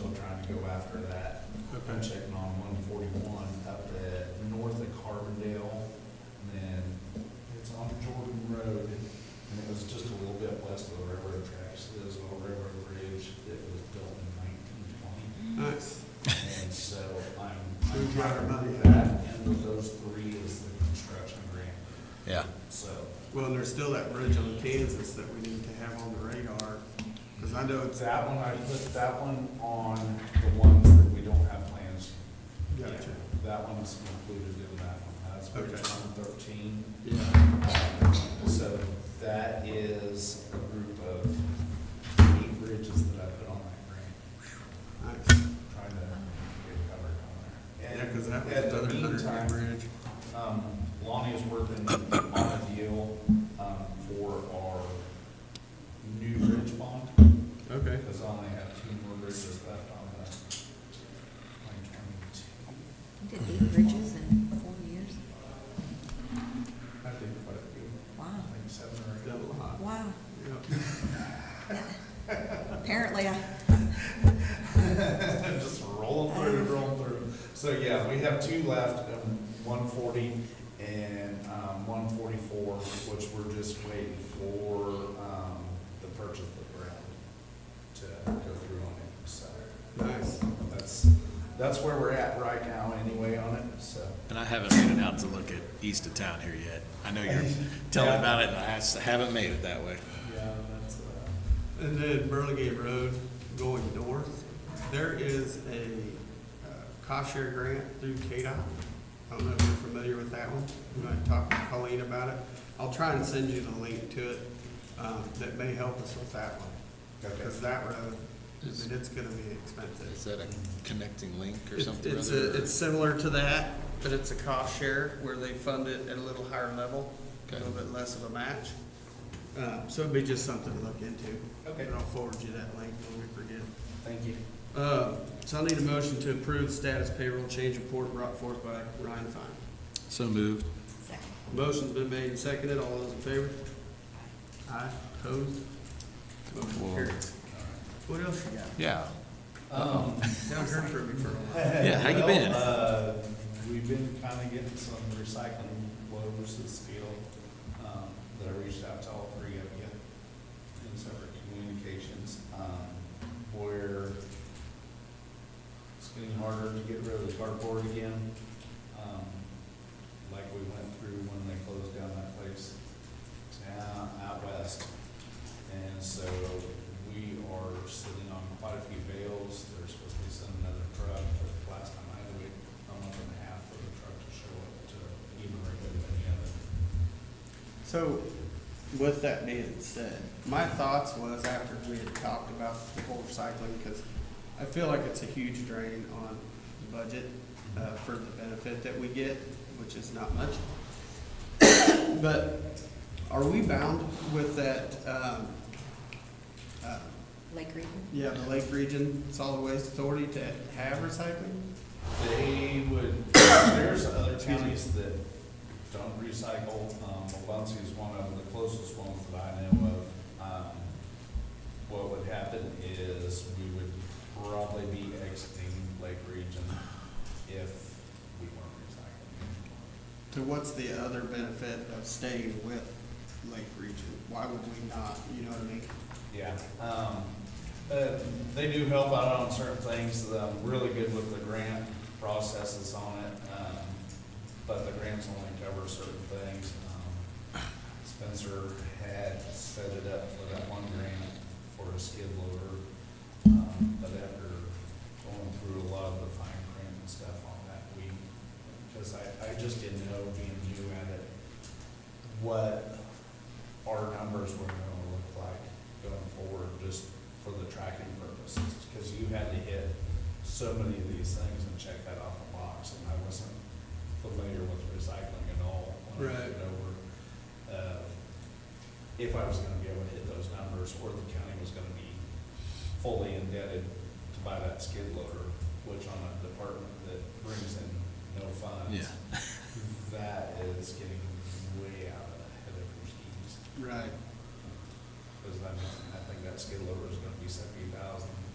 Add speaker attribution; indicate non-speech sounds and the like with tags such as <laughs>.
Speaker 1: to go after that. I'm
Speaker 2: Okay.
Speaker 1: checking on one forty-one up at north of Carbondale, and then it's on Jordan Road, and it was just a little bit west of the railroad tracks, there's an old railroad bridge that was built in nineteen twenty.
Speaker 2: Nice.
Speaker 1: And so I'm,
Speaker 2: Who
Speaker 1: I'm trying
Speaker 2: drive
Speaker 1: to
Speaker 2: money?
Speaker 1: remember that, and of those three is the construction grant,
Speaker 3: Yeah.
Speaker 1: so.
Speaker 2: Well, and there's still that bridge on Kansas that we need to have on the radar, because I know
Speaker 1: But
Speaker 2: it's,
Speaker 1: that one, I put that one on the ones that we don't have plans.
Speaker 2: gotcha.
Speaker 1: That one's included in that one, that's Bridge
Speaker 2: Okay.
Speaker 1: one thirteen.
Speaker 2: Yeah.
Speaker 1: So that is a group of eight bridges that I put on that grant,
Speaker 2: Nice.
Speaker 1: trying to get covered on there.
Speaker 2: Yeah,
Speaker 1: And
Speaker 2: because that was
Speaker 1: at the
Speaker 2: another hundred
Speaker 1: meantime,
Speaker 2: year bridge.
Speaker 1: Um, Lonnie is working on a deal, um, for our new bridge bond,
Speaker 2: Okay.
Speaker 1: because I only have two more bridges left on the twenty twenty-two.
Speaker 4: You did eight bridges in four years?
Speaker 1: I did quite a few,
Speaker 4: Wow,
Speaker 1: I think seven or eight.
Speaker 2: Done a lot.
Speaker 4: wow.
Speaker 2: Yep.
Speaker 4: Apparently, I,
Speaker 1: <laughs> Just rolling through, rolling through. So, yeah, we have two left, um, one forty and, um, one forty-four, which we're just waiting for, um, the purchase of the ground to go through on it, so.
Speaker 2: Nice.
Speaker 1: That's, that's where we're at right now anyway on it, so.
Speaker 3: And I haven't made it out to look at east of town here yet. I
Speaker 2: <laughs>
Speaker 3: know you're telling
Speaker 1: Yeah.
Speaker 3: about it, and I s- haven't made it that way.
Speaker 1: Yeah, that's, uh,
Speaker 2: And then Burlingame Road going north, there is a uh, cost share grant through KDOT. I don't know if you're familiar with that one. You might talk to Colleen about it. I'll try and send you the link to it, um, that may help us with that one. Because that road, I mean, it's gonna be expensive.
Speaker 3: Is that a connecting link or
Speaker 2: It's,
Speaker 3: something?
Speaker 2: it's,
Speaker 3: rather,
Speaker 2: a-
Speaker 3: or-
Speaker 2: it's similar to that, but it's a cost share where they fund it at a little higher level, a
Speaker 3: Okay.
Speaker 2: little bit less of a match. Uh, so it'd be just something to look into.
Speaker 1: Okay.
Speaker 2: And I'll forward you that link when we forget.
Speaker 1: Thank you.
Speaker 2: Uh, so I need a motion to approve status payroll change report brought forth by Ryan Fine.
Speaker 3: So moved.
Speaker 4: second,
Speaker 2: Motion's been made and seconded. All those in favor? Aye. Opposed? Motion
Speaker 3: Whoa.
Speaker 2: carried. What else you got?
Speaker 3: Yeah.
Speaker 1: Um,
Speaker 2: Haven't heard from you for a while.
Speaker 3: Yeah, how you
Speaker 1: well,
Speaker 3: been?
Speaker 1: uh, We've been kind of getting some recycling loads of steel um, that I reached out to all three of you in separate communications, um, where it's getting harder to get rid of the cardboard again, um, like we went through when they closed down that place down out west. And so we are sitting on quite a few bales. They're supposed to be sending another truck, but last time I had to wait a month and a half for the truck to show up to even regulate any of it.
Speaker 2: So, with that being said, my thoughts was after we had talked about the whole recycling, because I feel like it's a huge drain on the budget uh, for the benefit that we get, which is not much. <coughs> But are we bound with that, um, uh,
Speaker 4: Lake Region?
Speaker 2: yeah, the Lake Region Solid Waste Authority to have recycling?
Speaker 1: They would, there's other counties that don't recycle, um, Valencia is one of the closest ones that I know of. Um, What would happen is we would probably be exiting Lake Region if we weren't recycling.
Speaker 2: So what's the other benefit of staying with Lake Region? Why would we not, you know what I mean?
Speaker 1: Yeah, um, uh, they do help out on certain things, um, really good with the grant processes on it, um, but the grants only cover certain things. Um, Spencer had set it up for that one grant for a skid loader, um, but after going through a lot of the fine print and stuff on that, we, because I, I just didn't know, being new at it, what our numbers were gonna look like going forward, just for the tracking purposes, because you had to hit so many of these things and check that off the box, and I wasn't familiar with recycling at all when I
Speaker 2: Right.
Speaker 1: took it over. Uh, If I was gonna be able to hit those numbers, or the county was gonna be fully indebted to buy that skid loader, which on a department that brings in no funds.
Speaker 3: Yeah.
Speaker 1: That is getting way out ahead of your skis,
Speaker 2: Right.
Speaker 1: because I mean, I think that skid loader is gonna be seventy thousand